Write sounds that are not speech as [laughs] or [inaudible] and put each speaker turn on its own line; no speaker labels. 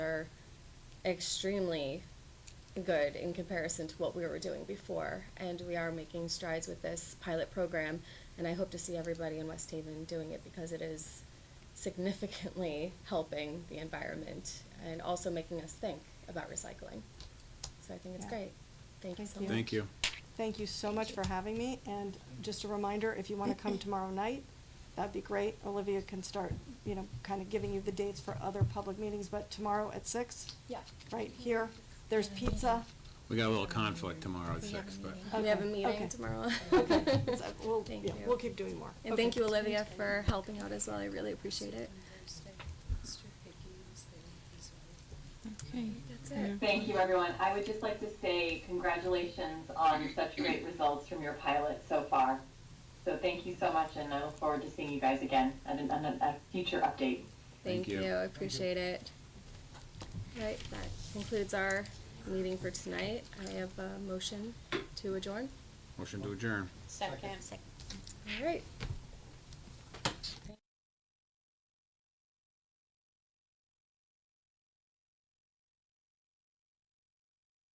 extremely good in comparison to what we were doing before. And we are making strides with this pilot program, and I hope to see everybody in West Haven doing it because it is significantly [laughs] helping the environment and also making us think about recycling. So I think it's
Yeah.
great. Thank you so much.
Thank you.
Thank you.
Thank you so much for having me, and just a reminder, if you want to come tomorrow night, that'd be great. Olivia can start, you know, kind of giving you the dates for other public meetings, but tomorrow at six,
Yeah.
right here,
[laughs]
there's pizza.
We got a little conflict tomorrow at six, but
We have a
Okay,
meeting
okay.
tomorrow. [laughs]
So We'll,
Thank
yeah,
you.
we'll keep doing more.
And
Okay.
thank you, Olivia, for helping out as well. I really appreciate it.
Okay.
That's it.
Thank you, everyone. I would just like to say congratulations on such great results from your pilot so far. So thank you so much, and I look forward to seeing you guys again at an, on a, a future update.
Thank
Thank
you,
you.
I appreciate it. Right, that concludes our meeting for tonight. I have a motion to adjourn.
motion to adjourn.
Second.
All right,